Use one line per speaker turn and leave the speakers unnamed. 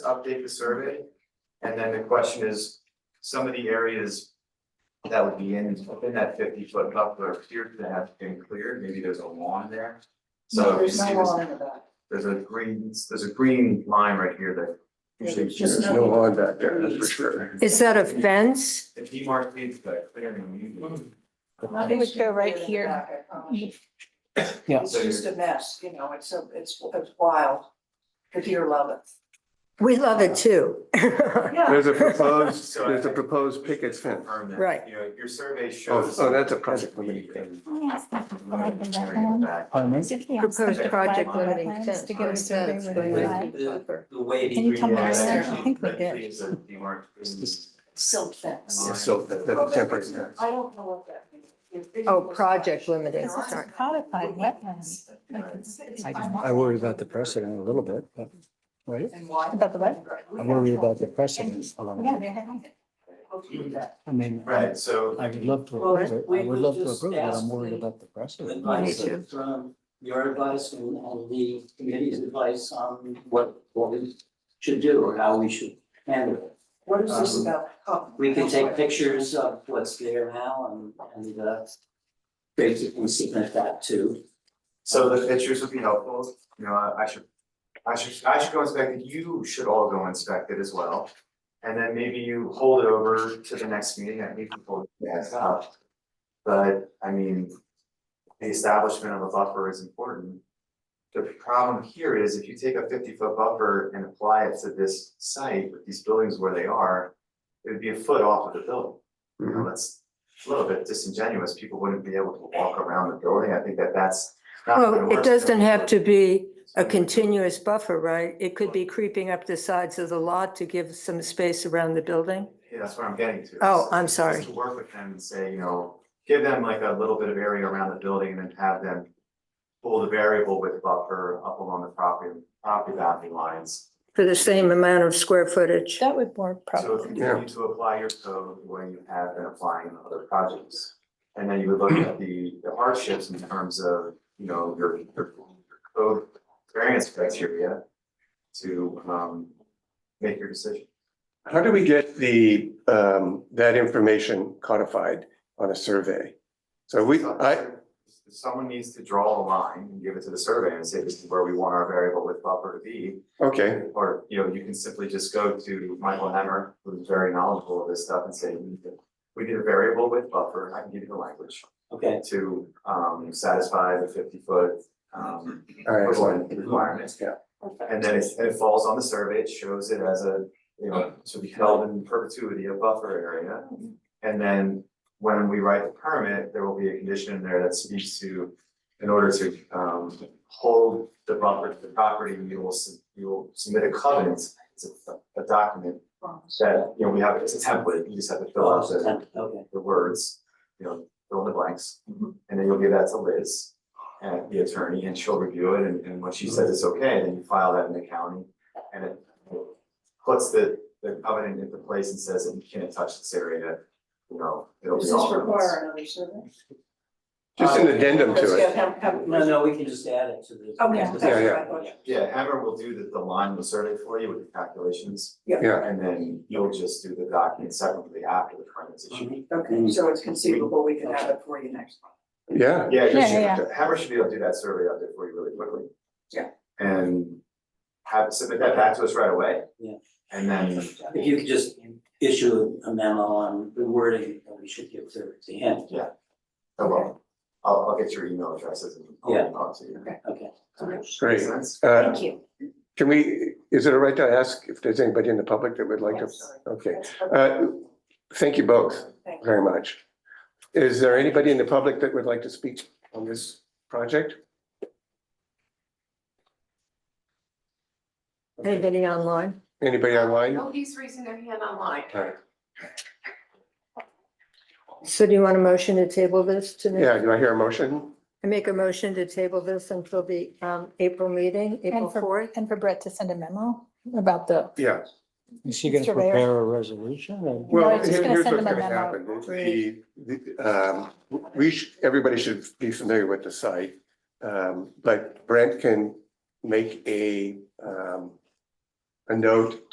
to update the survey. And then the question is, some of the areas that would be in, within that fifty foot buffer appear to have been cleared, maybe there's a lawn there. So if you
There's
see
no
this,
law in the back.
there's a green, there's a green line right here that
Yeah,
usually
it's just
appears.
no-
lawn back there, that's for sure.
Is that a fence?
If he marked these, but clearing you.
Nothing
would
should
go
be
right
in the
here.
back, I promise.
Yeah.
It's just a mess, you know, it's a, it's, it's wild. The deer love it.
We love it too.
Yeah,
There's a proposed, there's a proposed picket fence.
Confirm that,
Right.
You know, your survey
Oh,
shows.
oh, that's a project limit.
Green
Proposed
back.
Proposed project limiting fence.
To get a survey with
Right.
a
The the wavy
Can you
green
come
line,
back there?
actually,
I think we
that
did.
leaves a- you marked green.
silk fence.
Yeah, So that, that's a temporary fence.
I don't know what that means. If it
Oh,
was-
project limited,
There aren't
sorry.
codified wetlands.
I worry about the precedent a little bit, but, right?
And why?
About the what?
I worry about the precedent a little bit. I mean, I
Right, so.
would love to approve it. I would love to approve it. I'm worried about the precedent.
advice
too.
from your advice and and the committee's advice on what what we should do or how we should handle it.
What is this
Um,
about? Oh,
We can take
okay.
pictures of what's there now and and uh basically submit that to.
So the pictures would be helpful, you know, I I should, I should, I should go inspect it, you should all go inspect it as well. And then maybe you hold it over to the next meeting, I need people to pass out. But, I mean, the establishment of a buffer is important. The problem here is if you take a fifty foot buffer and apply it to this site with these buildings where they are, it would be a foot off of the building you
Mm-hmm.
know, that's a little bit disingenuous, people wouldn't be able to walk around the building, I think that that's not gonna
Well, Oh, it
work.
doesn't have to be a continuous buffer, right? It could be creeping up the sides of the lot to give some space around the building.
Yeah, that's what I'm getting to.
Oh, I'm sorry.
Just to work with them and say, you know, give them like a little bit of area around the building and then have them pull the variable width buffer up along the property, property boundary lines.
For the same amount of square footage.
That would work
So
probably.
continue to apply your code the way you have been applying in other projects. And then you would look at the the hardships in terms of, you know, your your your code variance criteria to um make your decision.
How do we get the, um, that information codified on a survey? So we, I,
Someone needs to draw a line and give it to the survey and say this is where we want our variable width buffer to be.
okay,
Or, you know, you can simply just go to Michael Hemmer, who's very knowledgeable of this stuff and say, we need a- we need a variable width buffer, I can give you the language.
Okay,
to um satisfy the fifty foot um
all right, excellent.
equivalent requirements.
Yeah.
And then it's, and it falls on the survey, it shows it as a, you know, to be held in perpetuity, a buffer area. And then when we write the permit, there will be a condition in there that speaks to, in order to um hold the buffer to the property, you will, sub- you will submit a covenant. It's a, a document that, you know, we have, it's a template, you just have to fill out the
okay,
the words, you know, fill in the blanks. And then you'll give that to Liz, and the attorney, and she'll review it, and, and when she says it's okay, then you file that in the county. And it puts the, the covenant into place and says that you can't touch this area, you know, it'll be
Does
all.
this
of us.
require another survey?
Just an addendum
Let's
to
get
it.
him- have-
no, no, we can just add it to the.
Okay, that's
Yeah,
what I thought.
Yeah, Amber will do the, the line will survey for you with the calculations,
Yeah,
and then you'll just do the document separately after the permit's issued.
Mhm.
Okay, so it's conceivable we can have it for you next month.
yeah.
Yeah, you
Yeah, yeah,
should, Hammer should be able to do that survey out there for you really quickly.
Yeah.
And have, submit that back to us right away.
Yeah.
And then,
If you could just issue a memo on the wording that we should give to to him,
oh, well, I'll, I'll get your email addresses and
Yeah.
I'll talk to you.
okay.
Great.
Makes sense?
Uh,
you.
can we, is it all right to ask if there's anybody in the public that would like to?
Yes.
Okay,
That's-
uh, thank you both
Thank you.
very much. Is there anybody in the public that would like to speak on this project?
Anybody online?
Anybody online?
Nobody's raising their hand online.
All right.
So do you want a motion to table this to the?
Yeah, do I hear a motion?
I make a motion to table this until the um April meeting, April
And for,
fourth.
and for Brett to send a memo about the,
Yeah,
Is she gonna
Mr. Mayor.
prepare a resolution or?
No, I
well,
was
here-
just gonna
here's
send
what's
them a
gonna
memo.
happen. The, the, um, we should, everybody should be familiar with the site. Um, but Brent can make a, um, a note